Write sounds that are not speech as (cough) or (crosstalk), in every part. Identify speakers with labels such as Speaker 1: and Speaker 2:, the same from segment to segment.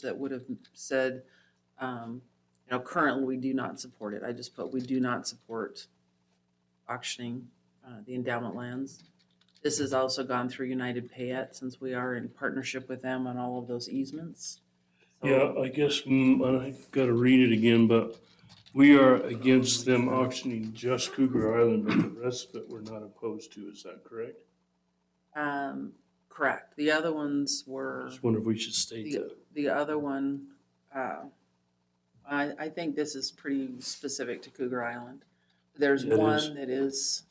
Speaker 1: that would have said, um, you know, currently we do not support it. I just put, we do not support auctioning, uh, the endowment lands. This has also gone through United Payette since we are in partnership with them on all of those easements. So-
Speaker 2: Yeah, I guess, mm, I gotta read it again, but we are against them auctioning just Cougar Island, but the rest of it we're not opposed to, is that correct?
Speaker 1: Um, correct. The other ones
Speaker 2: I
Speaker 1: were,
Speaker 2: just wonder if we should state
Speaker 1: the,
Speaker 2: that.
Speaker 1: the other one, uh, I, I think this is pretty specific to Cougar Island. There's
Speaker 2: It is.
Speaker 1: one that is,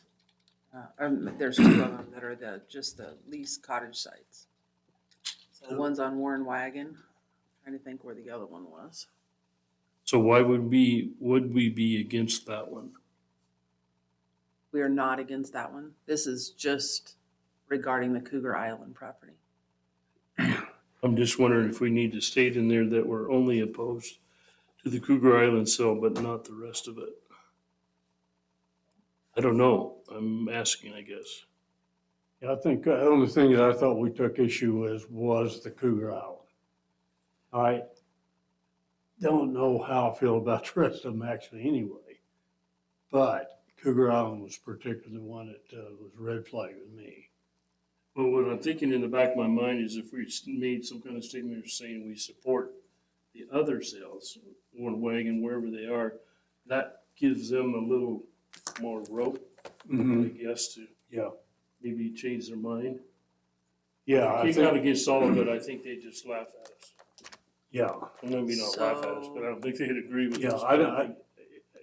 Speaker 1: uh, um, there's two of them that are the, just the lease cottage sites.
Speaker 2: Oh.
Speaker 1: So one's on Warren Wagon, trying to think where the other one was.
Speaker 2: So why would we, would we be against that one?
Speaker 1: We are not against that one. This is just regarding the Cougar Island property.
Speaker 2: I'm just wondering if we need to state in there that we're only opposed to the Cougar Island sale, but not the rest of it. I don't know. I'm asking, I guess.
Speaker 3: Yeah, I think uh, the only thing that I thought we took issue with was the Cougar Island. I don't know how I feel about the rest of them actually anyway, but Cougar Island was particularly the one that uh, was red flag with me.
Speaker 2: Well, what I'm thinking in the back of my mind is if we made some kind of statement saying we support the other sales, one wagon, wherever they are, that gives them a little more rope,
Speaker 3: Mm-hmm.
Speaker 2: I guess, to
Speaker 3: Yeah,
Speaker 2: maybe change their mind.
Speaker 3: yeah, I
Speaker 2: If not
Speaker 3: think,
Speaker 2: against all of it, I think they just laugh at us.
Speaker 3: yeah,
Speaker 2: I mean, maybe not laugh at us, but I don't think they'd agree with
Speaker 3: yeah,
Speaker 2: us.
Speaker 3: I, don't- I,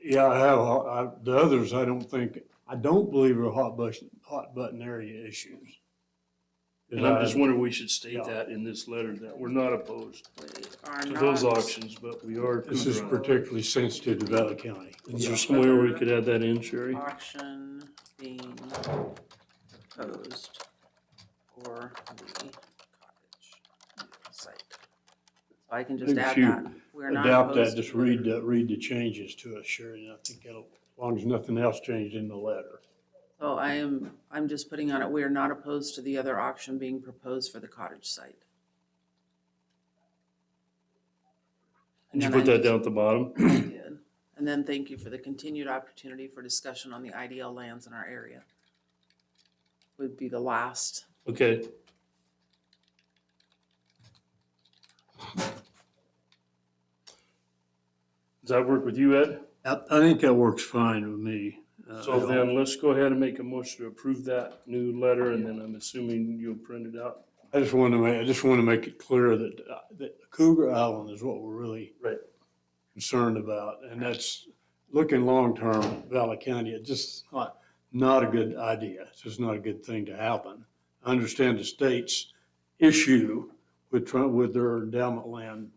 Speaker 3: yeah, I have, I, the others, I don't think, I don't believe are hot button, hot button area issues.
Speaker 2: And I'm just wondering, we should state
Speaker 3: Yeah.
Speaker 2: that in this letter, that we're not opposed
Speaker 1: We are
Speaker 2: to
Speaker 1: not.
Speaker 2: those auctions, but we are.
Speaker 3: This is
Speaker 2: Cougar Island.
Speaker 3: particularly sensitive to Valley County.
Speaker 2: Is there somewhere we could add that in, Sherry?
Speaker 1: auction being proposed for the cottage site. So I can just
Speaker 3: Maybe
Speaker 1: add
Speaker 3: you
Speaker 1: that. We're not
Speaker 3: Adopt that,
Speaker 1: opposed
Speaker 3: just
Speaker 1: to
Speaker 3: read,
Speaker 1: it.
Speaker 3: the- read the changes to us, Sherry, and I think that'll, as long as nothing else changed in the letter.
Speaker 1: So I am, I'm just putting on it, we are not opposed to the other auction being proposed for the cottage site. And
Speaker 2: Did you
Speaker 1: then
Speaker 2: put
Speaker 1: I
Speaker 2: that down at the bottom?
Speaker 1: just did. And then thank you for the continued opportunity for discussion on the IDL lands in our area. Would be the last
Speaker 2: Okay, does that work with you, Ed?
Speaker 3: I, I think that works fine with me. Uh,
Speaker 2: So then let's go ahead and make a motion to approve that new letter and then I'm assuming you'll print it out.
Speaker 3: I just want to make, I just want to make it clear that, uh, that Cougar Island is what we're really
Speaker 2: Right.
Speaker 3: concerned about, and that's looking long-term at Valley County, it's just not, not a good idea. It's just not a good thing to happen. I understand the state's issue with, try- with their endowment land.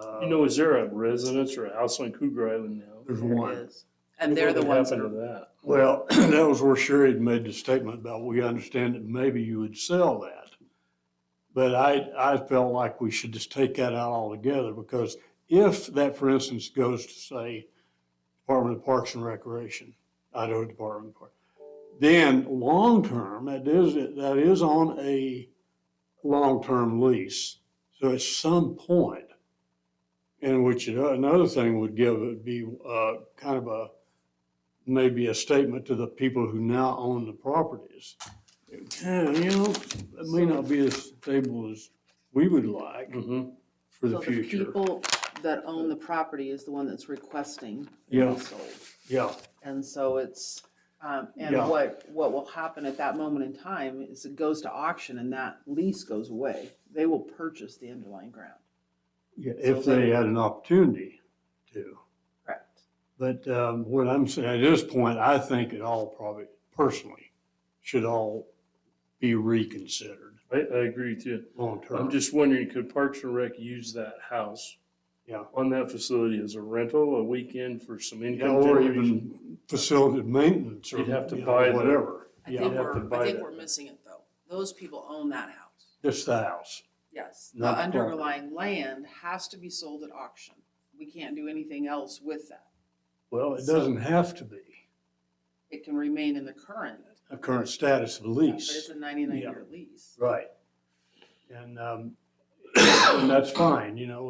Speaker 3: uh,
Speaker 2: You know, is there a residence or a house on Cougar Island now?
Speaker 3: There's
Speaker 1: There it
Speaker 3: one.
Speaker 1: is. And they're the
Speaker 2: What
Speaker 1: ones that
Speaker 2: happened
Speaker 1: are,
Speaker 2: to that?
Speaker 3: Well, (clears throat) that was where Sherry had made the statement about, we understand that maybe you would sell that. But I, I felt like we should just take that out altogether because if that, for instance, goes to say Department of Parks and Recreation, Idaho Department of Parks, then long-term, that is, that is on a long-term lease. So at some point, in which it- another thing would give would be, uh, kind of a, maybe a statement to the people who now own the properties. Yeah, you know, it may not be as stable as we would like
Speaker 2: Mhm.
Speaker 3: for
Speaker 1: so
Speaker 3: the
Speaker 1: the
Speaker 3: future.
Speaker 1: people that own the property is the one that's requesting it
Speaker 3: Yeah.
Speaker 1: be sold.
Speaker 3: Yeah,
Speaker 1: And so it's, um, and
Speaker 3: Yeah.
Speaker 1: what, what will happen at that moment in time is it goes to auction and that lease goes away. They will purchase the underlying ground.
Speaker 3: yeah,
Speaker 1: So
Speaker 3: if they
Speaker 1: they-
Speaker 3: had an opportunity to.
Speaker 1: Correct.
Speaker 3: But um, what I'm saying, at this point, I think it all probably, personally, should all be reconsidered
Speaker 2: I, I agree with you.
Speaker 3: long-term.
Speaker 2: I'm just wondering, could Parks and Rec use that house
Speaker 3: Yeah,
Speaker 2: on that facility as a rental, a weekend for some
Speaker 3: Yeah,
Speaker 2: income
Speaker 3: or
Speaker 2: generation?
Speaker 3: even facility maintenance or
Speaker 2: You'd have to
Speaker 3: you know,
Speaker 2: buy the-
Speaker 3: Whatever,
Speaker 1: I
Speaker 3: yeah,
Speaker 1: think
Speaker 2: You'd have to
Speaker 1: we're, I
Speaker 2: buy
Speaker 1: think
Speaker 2: that.
Speaker 1: we're missing it though. Those people own that house.
Speaker 3: just the house.
Speaker 1: Yes. The
Speaker 3: Not the property.
Speaker 1: underlying land has to be sold at auction. We can't do anything else with that.
Speaker 3: Well, it
Speaker 1: So-
Speaker 3: doesn't have to be
Speaker 1: It can remain in the current
Speaker 3: a current status of
Speaker 1: Yeah, But it's
Speaker 3: lease.
Speaker 1: a ninety-nine year lease.
Speaker 3: Right. (coughs) And, um, and that's fine, you know,